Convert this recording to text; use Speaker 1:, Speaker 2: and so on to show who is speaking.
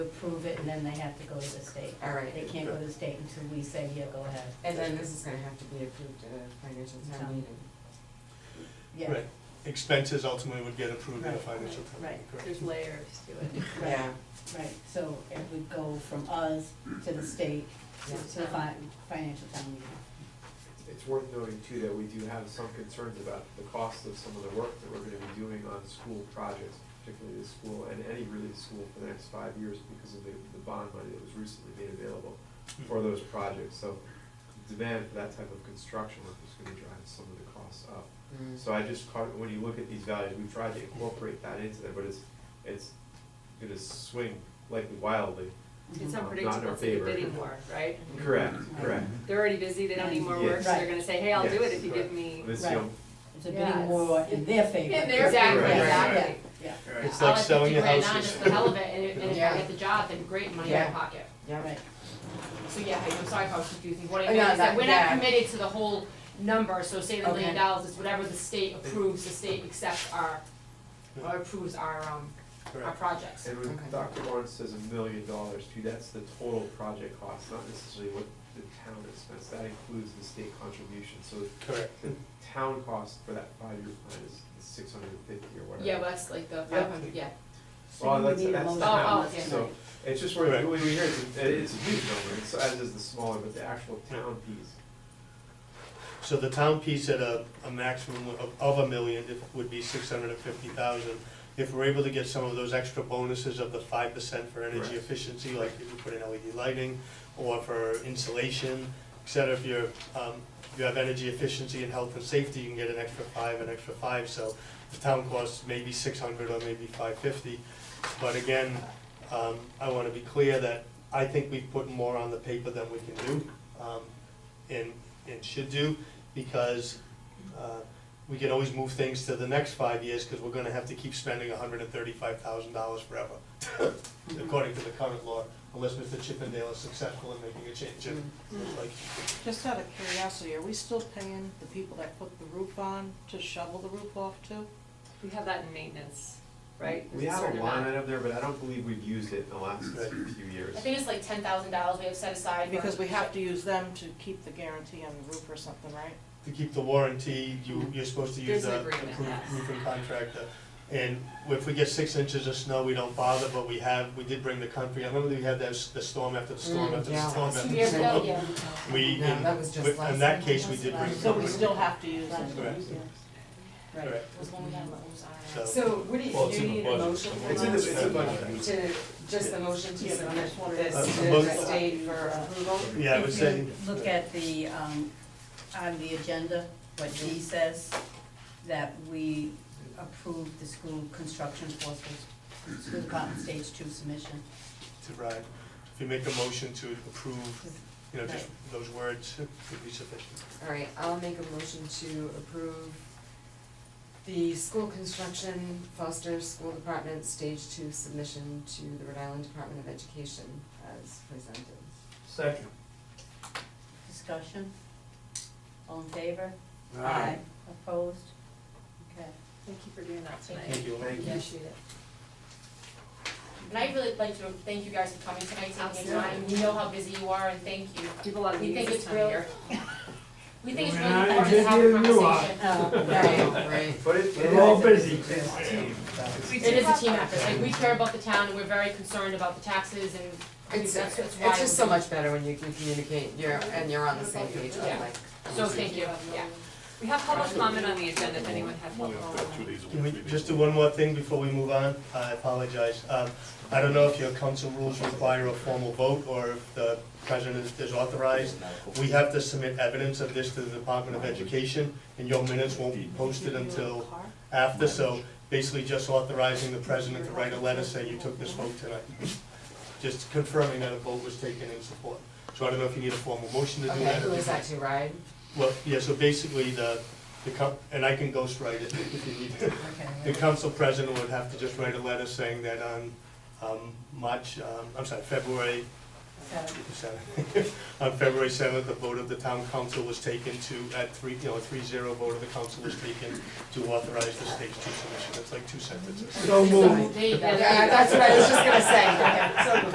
Speaker 1: approve it, and then they have to go to the state.
Speaker 2: All right.
Speaker 1: They can't go to the state until we say, yeah, go ahead.
Speaker 2: And then this is gonna have to be approved at a financial town
Speaker 1: Town.
Speaker 2: meeting.
Speaker 1: Yeah,
Speaker 3: Right, expenses ultimately would get approved in a
Speaker 1: Right,
Speaker 3: financial
Speaker 1: right,
Speaker 3: plan,
Speaker 1: right.
Speaker 3: correct?
Speaker 4: There's layers to it.
Speaker 1: Right. right, so it would go from us to the state, to to the fi- financial town meeting.
Speaker 5: It's worth noting too that we do have some concerns about the cost of some of the work that we're gonna be doing on school projects, particularly this school and any really school for the next five years because of the, the bond money that was recently made available for those projects. So demand for that type of construction work is gonna drive some of the costs up.
Speaker 2: Mm.
Speaker 5: So I just caught, when you look at these values, we tried to incorporate that into there, but it's, it's gonna swing likely wildly.
Speaker 4: It's
Speaker 5: Mhm. Not in
Speaker 4: unpredictable,
Speaker 5: our
Speaker 4: it's like a
Speaker 5: favor.
Speaker 4: bidding war, right?
Speaker 5: Correct, correct.
Speaker 4: They're already busy, they don't need more work, so
Speaker 1: Yes.
Speaker 4: they're gonna say, hey, I'll do it
Speaker 5: Yes.
Speaker 4: if you give me.
Speaker 5: This,
Speaker 1: Right.
Speaker 5: you know,
Speaker 1: It's a
Speaker 4: Yeah,
Speaker 1: bidding war
Speaker 4: it's-
Speaker 1: in their favor.
Speaker 4: In their
Speaker 6: Exactly,
Speaker 5: Right.
Speaker 4: exactly.
Speaker 1: Yeah,
Speaker 3: It's
Speaker 6: I'll
Speaker 3: like
Speaker 6: have
Speaker 3: selling
Speaker 6: 50
Speaker 3: your
Speaker 6: grand on
Speaker 3: houses.
Speaker 6: just the hell of it, and if, and if
Speaker 2: Yeah.
Speaker 6: I get the job, then great money in
Speaker 2: Yeah.
Speaker 6: my pocket.
Speaker 2: Yeah.
Speaker 1: right,
Speaker 6: So yeah, I- I'm sorry if I was confusing, what
Speaker 2: Oh,
Speaker 6: I meant
Speaker 2: no, that-
Speaker 6: is that we're not
Speaker 2: yeah.
Speaker 6: committed to the whole number, so say the
Speaker 1: Okay.
Speaker 6: million dollars is whatever the state approves, the state accepts our, or approves our, um, our
Speaker 3: Correct.
Speaker 6: projects.
Speaker 5: And when
Speaker 2: Okay.
Speaker 5: Dr. Lawrence says a million dollars too, that's the total project cost, not necessarily what the town has spent. That includes the state contribution, so
Speaker 3: Correct.
Speaker 5: the town cost for that five-year plan is six hundred and fifty or whatever.
Speaker 6: Yeah, well, that's like the five hundred, yeah,
Speaker 1: so
Speaker 5: Well,
Speaker 1: you would
Speaker 5: that's,
Speaker 1: need a
Speaker 5: that's
Speaker 1: motion.
Speaker 5: the
Speaker 6: Oh,
Speaker 5: town,
Speaker 6: oh, okay.
Speaker 5: so it's just where,
Speaker 3: Right.
Speaker 5: we we hear it's, a- it's a huge number, it's as is the smaller, but the actual town piece.
Speaker 3: So the town piece at a, a maximum of, of a million if- would be six hundred and fifty thousand. If we're able to get some of those extra bonuses of the five percent for energy
Speaker 5: Correct.
Speaker 3: efficiency, like if you put in LED lighting or for insulation, et cetera, if you're, um, if you have energy efficiency and health and safety, you can get an extra five, an extra five, so the town costs maybe six hundred or maybe five fifty. But again, um, I wanna be clear that I think we've put more on the paper than we can do, um, and, and should do, because, uh, we can always move things to the next five years, cause we're gonna have to keep spending hundred and thirty-five thousand dollars forever, according to the current law, unless Mr. Chippendale is successful in making a change, and, like,
Speaker 7: Just out of curiosity, are we still paying the people that put the roof on to shovel the roof off too?
Speaker 4: We have that in maintenance, right?
Speaker 5: We
Speaker 4: There's
Speaker 5: have
Speaker 4: certain
Speaker 5: a
Speaker 4: amount.
Speaker 5: line item there, but I don't believe we've used it in the last
Speaker 3: Right.
Speaker 5: few years.
Speaker 6: I think it's like ten thousand dollars we have set aside for.
Speaker 7: Because we have to use them to keep the guarantee on the roof or something, right?
Speaker 3: to keep the warranty, you, you're supposed to use
Speaker 4: There's an
Speaker 3: the
Speaker 4: agreement,
Speaker 3: approved
Speaker 4: yes.
Speaker 3: roofing contractor. And if we get six inches of snow, we don't bother, but we have, we did bring the country, I remember we had that, s- the storm after the storm
Speaker 2: Mm,
Speaker 3: after the
Speaker 2: yeah.
Speaker 3: storm after
Speaker 6: Two
Speaker 3: the
Speaker 6: years
Speaker 3: storm.
Speaker 6: ago, yeah.
Speaker 3: We,
Speaker 2: Mm. No,
Speaker 3: in,
Speaker 2: that was just
Speaker 3: with-
Speaker 2: last
Speaker 3: in that
Speaker 2: time,
Speaker 3: case, we
Speaker 2: wasn't
Speaker 3: did
Speaker 2: it?
Speaker 3: bring the
Speaker 7: So we
Speaker 3: company.
Speaker 7: still have to use them.
Speaker 3: Correct.
Speaker 1: Right,
Speaker 6: It was when we had Lowe's
Speaker 3: So-
Speaker 6: on.
Speaker 2: So what do
Speaker 8: Well,
Speaker 2: you,
Speaker 8: it's
Speaker 2: do you
Speaker 8: in the
Speaker 2: need a
Speaker 8: budget.
Speaker 2: motion from
Speaker 5: It's in the,
Speaker 2: us?
Speaker 5: it's in the budget.
Speaker 2: To, just the motion to
Speaker 7: Yeah, but
Speaker 2: submit
Speaker 7: I'm just wondering-
Speaker 2: this to
Speaker 3: Uh, most-
Speaker 2: the state for approval?
Speaker 3: Yeah, I would say.
Speaker 1: If you look at the, um, on the agenda, what he says, that we approve the school construction for school- school department stage two submission.
Speaker 3: to Ryan, if you make a motion to approve, you know, just those words would be sufficient.
Speaker 2: All right, I'll make a motion to approve the school construction Foster School Department Stage Two submission to the Rhode Island Department of Education as presented.
Speaker 8: Second.
Speaker 1: Discussion? All in favor?
Speaker 8: Aye.
Speaker 1: Opposed? Okay.
Speaker 4: Thank you for doing that tonight.
Speaker 3: Thank you.
Speaker 5: Thank you.
Speaker 4: Appreciate it.
Speaker 6: And I'd really like to thank you guys for coming tonight, taking your time, we know how busy you are, and thank you.
Speaker 4: We have a lot of
Speaker 6: We think
Speaker 4: meetings this
Speaker 6: it's
Speaker 4: time of
Speaker 6: real.
Speaker 4: year.
Speaker 6: We think it's
Speaker 8: When
Speaker 6: really
Speaker 8: I
Speaker 6: important to
Speaker 8: did
Speaker 6: have a
Speaker 8: hear you, I-
Speaker 6: conversation.
Speaker 1: Uh,
Speaker 2: Right, right.
Speaker 5: But it, it
Speaker 8: We're all
Speaker 5: is-
Speaker 8: busy.
Speaker 5: it's a team.
Speaker 6: It is a team effort, like, we care about the town, and we're very concerned about the taxes, and I think
Speaker 2: It's,
Speaker 6: that's, that's
Speaker 2: it's
Speaker 6: why.
Speaker 2: just so much better when you can communicate, you're, and you're on the same page,
Speaker 6: Yeah.
Speaker 2: like.
Speaker 6: So thank you, yeah.
Speaker 4: We have public comment on the agenda if anyone has
Speaker 8: Only
Speaker 4: public
Speaker 8: up
Speaker 4: comment.
Speaker 8: that two days a
Speaker 3: Can we
Speaker 8: week. maybe.
Speaker 3: just do one more thing before we move on? I apologize. Um, I don't know if your council rules require a formal vote or if the president is authorized. We have to submit evidence of this to the Department of Education, and your minutes won't be posted until after, so basically just authorizing the president to write a letter saying you took this vote tonight. Just confirming that a vote was taken in support. So I don't know if you need a formal motion to do
Speaker 2: Okay,
Speaker 3: that.
Speaker 2: who is that to, Ryan?
Speaker 3: Well, yeah, so basically the, the, co- and I can ghostwrite it if you need to. The
Speaker 1: Okay.
Speaker 3: council president would have to just write a letter saying that on, um, March, um, I'm sorry, February
Speaker 1: Seven.
Speaker 3: seventh, on February seventh, the vote of the town council was taken to, at three, you know, three zero vote of the council was taken to authorize the stage two submission, that's like two sentences.
Speaker 8: So moved.
Speaker 2: Uh,
Speaker 6: There you go.
Speaker 2: Yeah, that's what I was just gonna say, okay.